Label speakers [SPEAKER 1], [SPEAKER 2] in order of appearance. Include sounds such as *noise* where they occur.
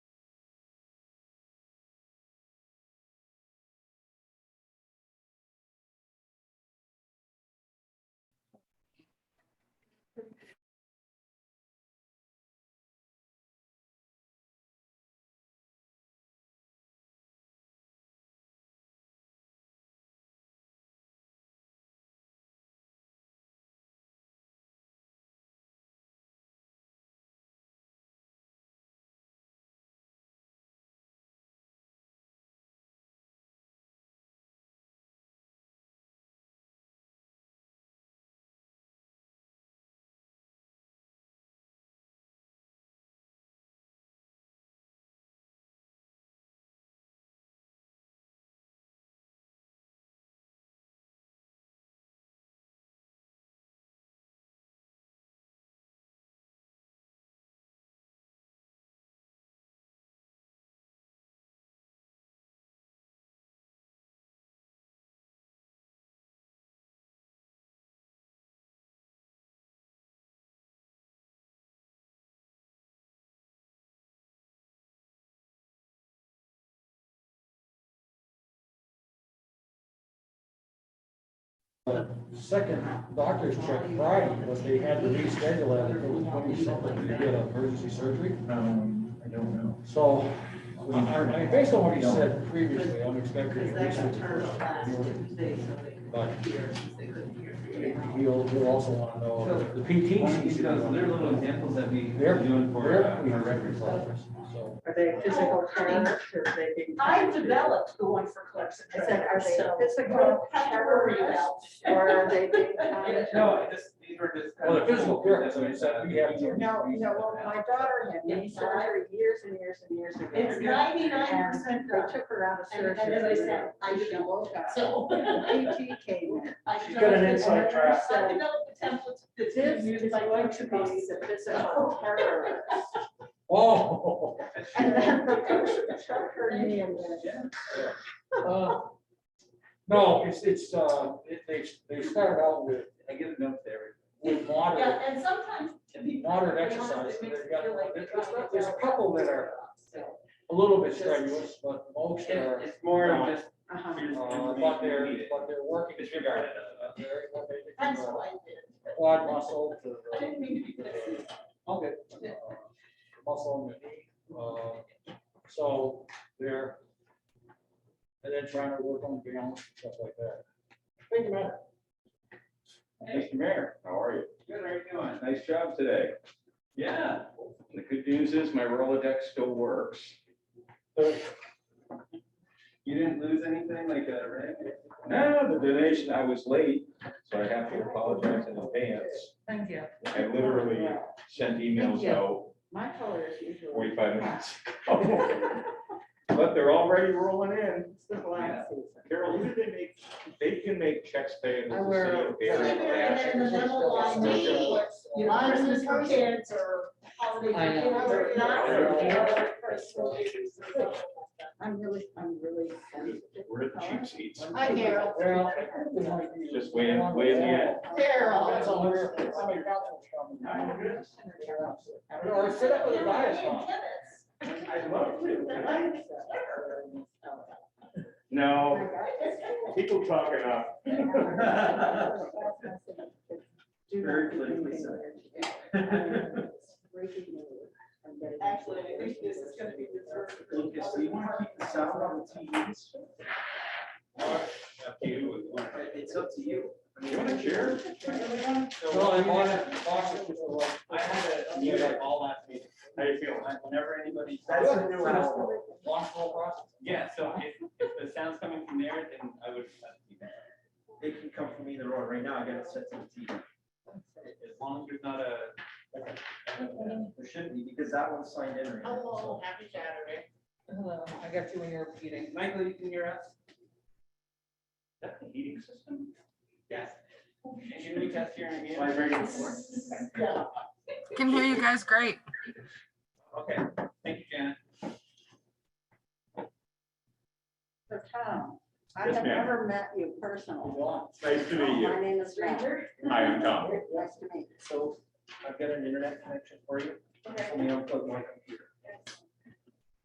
[SPEAKER 1] The second doctor's check Friday, but they had to reschedule it, I think it was twenty something, to get emergency surgery.
[SPEAKER 2] Um, I don't know.
[SPEAKER 1] So, I, I, based on what he said previously, I'm expecting. a recent report. But he'll, he'll also wanna know, the PTs, he's
[SPEAKER 2] Because
[SPEAKER 1] gonna
[SPEAKER 2] there are
[SPEAKER 1] want
[SPEAKER 2] little
[SPEAKER 1] to know.
[SPEAKER 2] examples that we
[SPEAKER 1] They're,
[SPEAKER 2] are doing for,
[SPEAKER 1] they're,
[SPEAKER 2] uh,
[SPEAKER 1] we
[SPEAKER 2] our
[SPEAKER 1] records
[SPEAKER 2] records.
[SPEAKER 1] office, so.
[SPEAKER 3] Are they physical clinics or they being?
[SPEAKER 4] I developed the one for Clarkson.
[SPEAKER 3] I said, are they
[SPEAKER 4] So-
[SPEAKER 3] physical
[SPEAKER 4] Pepper
[SPEAKER 3] terrorists
[SPEAKER 4] out.
[SPEAKER 3] or are they *laughs* being? kind of-
[SPEAKER 2] No, I just, these were just.
[SPEAKER 1] Well, the physical therapist, I mean, so we have to-
[SPEAKER 3] No, you know, well, my daughter had knee surgery years and years and years ago.
[SPEAKER 4] It's ninety-nine percent
[SPEAKER 3] They
[SPEAKER 4] done.
[SPEAKER 3] took her out of
[SPEAKER 4] And- and
[SPEAKER 3] surgery.
[SPEAKER 4] as I said, I
[SPEAKER 3] She
[SPEAKER 4] didn't
[SPEAKER 3] woke up.
[SPEAKER 4] So.
[SPEAKER 3] The PT came in.
[SPEAKER 4] She's
[SPEAKER 1] got an inside track.
[SPEAKER 4] I developed the template
[SPEAKER 3] This
[SPEAKER 4] that's been
[SPEAKER 3] is
[SPEAKER 4] used by
[SPEAKER 3] going
[SPEAKER 4] like
[SPEAKER 3] to be the physical terrorist.
[SPEAKER 1] Oh. *laughs*
[SPEAKER 3] And then the coach took her knee and went,
[SPEAKER 1] uh, No, it's, it's, uh, it- they, they started out with,
[SPEAKER 2] I give notes to everything.
[SPEAKER 1] with moderate
[SPEAKER 4] Yeah, and sometimes to be.
[SPEAKER 1] Modern
[SPEAKER 4] perfectly honest,
[SPEAKER 1] exercise,
[SPEAKER 4] it makes
[SPEAKER 1] they've
[SPEAKER 4] me
[SPEAKER 1] got-
[SPEAKER 4] feel like
[SPEAKER 1] there's-
[SPEAKER 4] they're trying to
[SPEAKER 1] there's a
[SPEAKER 4] tell
[SPEAKER 1] couple
[SPEAKER 4] us
[SPEAKER 1] that are-
[SPEAKER 4] so.
[SPEAKER 1] a little bit strenuous, but most are,
[SPEAKER 2] It's, it's more of just.
[SPEAKER 3] uh-huh.
[SPEAKER 2] here's the
[SPEAKER 1] uh,
[SPEAKER 2] information
[SPEAKER 1] but
[SPEAKER 2] we
[SPEAKER 1] they're,
[SPEAKER 2] needed.
[SPEAKER 1] but they're working.
[SPEAKER 2] Disregard it.
[SPEAKER 1] They're- what they do,
[SPEAKER 4] That's
[SPEAKER 1] uh,
[SPEAKER 4] what I did.
[SPEAKER 1] Quad muscle to
[SPEAKER 4] I
[SPEAKER 1] the,
[SPEAKER 4] didn't mean to be sexist.
[SPEAKER 1] okay, uh, muscle on the knee, uh, so they're, and then trying to work on balance, and stuff like that. Think about it.
[SPEAKER 5] Mr. Mayor, how are you?
[SPEAKER 2] Good, how are you doing?
[SPEAKER 5] Nice job today.
[SPEAKER 2] Yeah.
[SPEAKER 5] The good news is my Rolodex still works.
[SPEAKER 2] You didn't lose anything like a ring?
[SPEAKER 5] Now, the donation, I was late, so I have to apologize in advance.
[SPEAKER 3] Thank you.
[SPEAKER 5] I literally sent emails out
[SPEAKER 3] My color is usually.
[SPEAKER 5] forty-five minutes ago. But they're already rolling in.
[SPEAKER 3] It's the black season.
[SPEAKER 5] Carol, who do they make? They can make checks payable
[SPEAKER 3] I
[SPEAKER 5] to
[SPEAKER 3] wear-
[SPEAKER 5] City of
[SPEAKER 4] Delivery and then
[SPEAKER 5] Bear.
[SPEAKER 4] the middle line, maybe what's,
[SPEAKER 1] uh,
[SPEAKER 4] you know, Christmas for kids or holiday
[SPEAKER 6] I know.
[SPEAKER 4] for kids, or not for kids, or personal use or something like that.
[SPEAKER 3] I'm really, I'm really sensitive.
[SPEAKER 5] We're the cheap seats.
[SPEAKER 4] Hi, Carol.
[SPEAKER 1] Well, I think they might be-
[SPEAKER 5] Just way in- way in the end.
[SPEAKER 4] Carol.
[SPEAKER 1] That's all there. Somebody got one from-
[SPEAKER 3] I don't know,
[SPEAKER 1] Or sit up with a bias on.
[SPEAKER 4] Yeah,
[SPEAKER 5] I'd love to.
[SPEAKER 4] and tennis.
[SPEAKER 5] No, people talking up.
[SPEAKER 2] Very politically
[SPEAKER 4] Actually, I think this is gonna be reserved. for the
[SPEAKER 2] Lucas, do you want to keep the sound on the TVs?
[SPEAKER 5] Up to you.
[SPEAKER 2] It's up to you. I
[SPEAKER 5] *laughs*
[SPEAKER 2] mean,
[SPEAKER 5] You want a chair?
[SPEAKER 1] No, I want it, box it with the one.
[SPEAKER 2] I had a music all last meeting. How you feel? Whenever anybody.
[SPEAKER 1] That's a new
[SPEAKER 2] sounds-
[SPEAKER 1] one. Box all box.
[SPEAKER 2] Yeah, so if, if the sound's coming from there, then I would. It can come from either or. Right now, I got it set to the TV. As long as there's not a. There shouldn't be, because that one's signed in right now. so.
[SPEAKER 4] happy Saturday.
[SPEAKER 6] Hello, I got you when you were eating.
[SPEAKER 2] Michael, you can hear us?
[SPEAKER 5] Is that the heating system?
[SPEAKER 2] Yes. Can we test hearing again?
[SPEAKER 4] Yeah.
[SPEAKER 7] Can hear you guys great.
[SPEAKER 2] Okay, thank you, Janet.
[SPEAKER 3] So Tom, I
[SPEAKER 5] Yes,
[SPEAKER 3] have
[SPEAKER 5] ma'am.
[SPEAKER 3] never met you personally.
[SPEAKER 5] Nice to meet
[SPEAKER 3] My
[SPEAKER 5] you.
[SPEAKER 3] name is Rachel.
[SPEAKER 5] Hi, I'm Tom.
[SPEAKER 3] Nice to meet you.
[SPEAKER 2] So I've got an internet connection for you.
[SPEAKER 4] Okay.
[SPEAKER 2] Let me unplug my computer.